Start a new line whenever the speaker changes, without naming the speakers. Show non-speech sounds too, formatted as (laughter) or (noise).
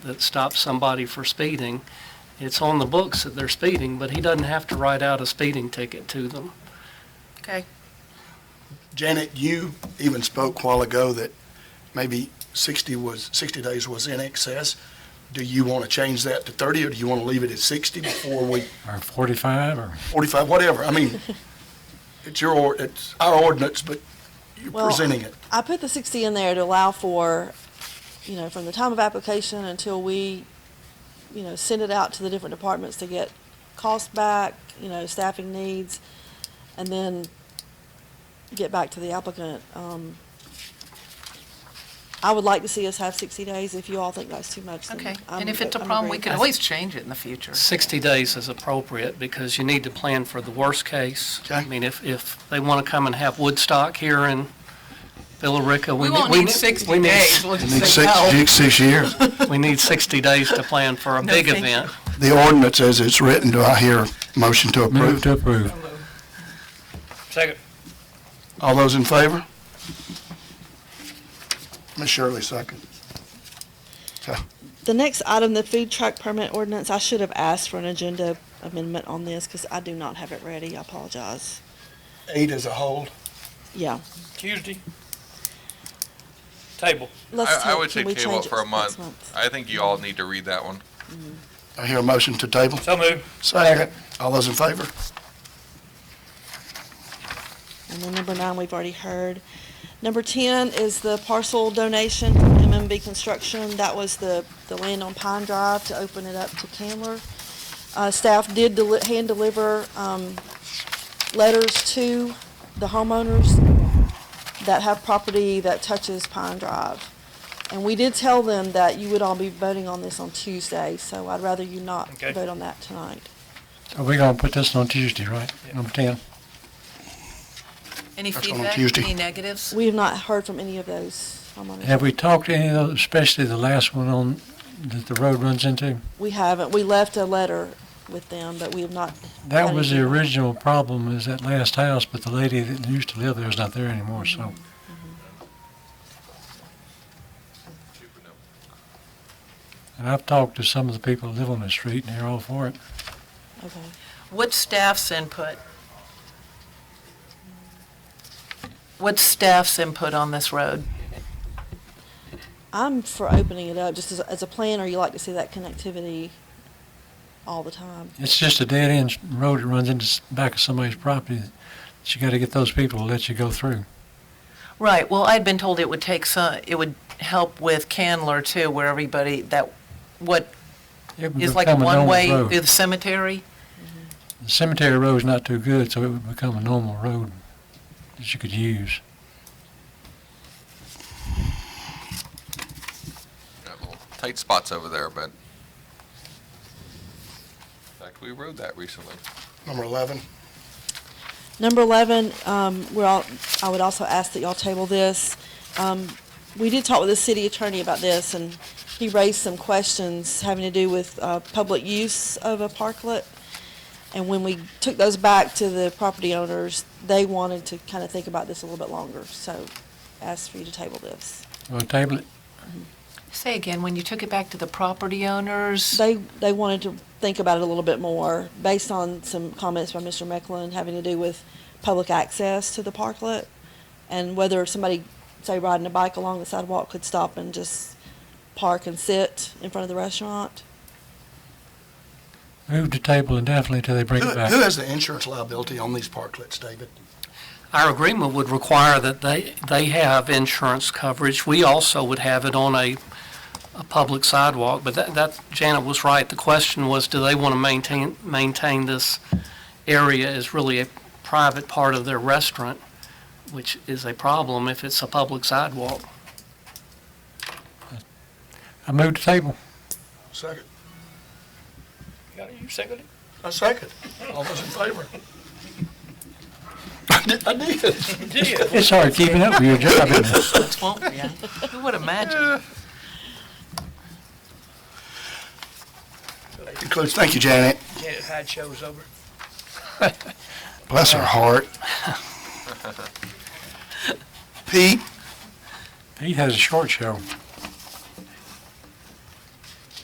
that stops somebody for speeding, it's on the books that they're speeding, but he doesn't have to write out a speeding ticket to them.
Okay.
Janet, you even spoke a while ago that maybe 60 was, 60 days was in excess. Do you want to change that to 30, or do you want to leave it at 60 before we,
Or 45, or
45, whatever? I mean, it's your, or- it's our ordinance, but you're
Well,
presenting it.
I put the sixty in there to allow for, you know, from the time of application until we, you know, send it out to the different departments to get costs back, you know, staffing needs, and then get back to the applicant. Um, I would like to see us have sixty days. If you all think that's too much, then
Okay,
I'm
and if it's a
um, I'm
problem, we
agreeing.
can always change it in the future.
60 days is appropriate because you need to plan for the worst case. I
Okay.
mean, if, if they want to come and have Woodstock here in Billerica, we
We won't
need, we
need
need,
60
we
days.
need,
We'll
Need
just say no.
six, six years.
we need 60 days to plan for a
No,
big
thank you.
event.
The ordinance as it's written, do I hear a motion to
move
approve?
to approve.
Second.
All those in favor? Ms. Shirley, second.
The next item, the food truck permit ordinance, I should have asked for an agenda amendment on this because I do not have it ready. I apologize.
Eight as a whole.
Yeah.
Tuesday. Table.
Let's
I, I
take-
would say
can we
table
change
it for a
next
month. I think you all need to read that one.
I hear a motion to table.
So moved.
Second. All those in favor?
And then number nine, we've already heard. Number 10 is the parcel donation from MMB Construction. That was the, the land on Pine Drive to open it up to Candler. Uh, Staff did deli- hand deliver um, letters to the homeowners that have property that touches Pine Drive. And we did tell them that you would all be voting on this on Tuesday, so I'd rather you not
Okay.
vote on that tonight.
So we're going to put this on Tuesday, right? Number 10.
Any
That's on
feedback,
Tuesday.
any negatives?
We have not heard from any of those homeowners.
Have we talked to any of those, especially the last one on, that the road runs into?
We haven't. We left a letter with them, but we have not.
That
had
was the
anything.
original problem, is that last house, but the lady that used to live there is not there anymore, so. And I've talked to some of the people that live on the street, and they're all for it.
Okay.
What's staff's input? What's staff's input on this road?
I'm for opening it up, just as, as a planner, you like to see that connectivity all the time.
It's just a dead-end road that runs into the back of somebody's property. that You got to get those people to let you go through.
Right, well, I'd been told it would take some, it would help with Candler too, where everybody, that, what
It would
is like a
become a normal
one-way
road.
through the cemetery?
The Cemetery road's not too good, so it would become a normal road that you could use.
Got little tight spots over there, but. In fact, we rode that recently.
Number 11.
Number 11, um, we're all, I would also ask that y'all table this. Um, we did talk with the city attorney about this, and he raised some questions having to do with, uh, public use of a parklet. And when we took those back to the property owners, they wanted to kind of think about this a little bit longer, so ask for you to table this.
Well, table it.
Say again, when you took it back to the property owners?
They, they wanted to think about it a little bit more, based on some comments by Mr. Mecklin having to do with public access to the parklet, and whether somebody, say, riding a bike along the sidewalk could stop and just park and sit in front of the restaurant.
Move the table indefinitely till they bring
Who
it
who
back.
has the insurance liability on these parklets, David?
Our agreement would require that they, they have insurance coverage. We also would have it on a, a public sidewalk, but that, that, Janet was right. The question was, do they want to maintain, maintain this area as really a private part of their restaurant, which is a problem if it's a public sidewalk.
I moved the table.
Second.
Got it, you second it?
A second. All those in favor? I did- I did.
Yeah.
It's hard keeping up with your job,
(laughs)
isn't it?
That's won't we? Who would imagine?
Concludes, thank you, Janet.
Janet Hyde show's over.
Bless her
(laughs)
heart.
Pete,
Pete has a short show.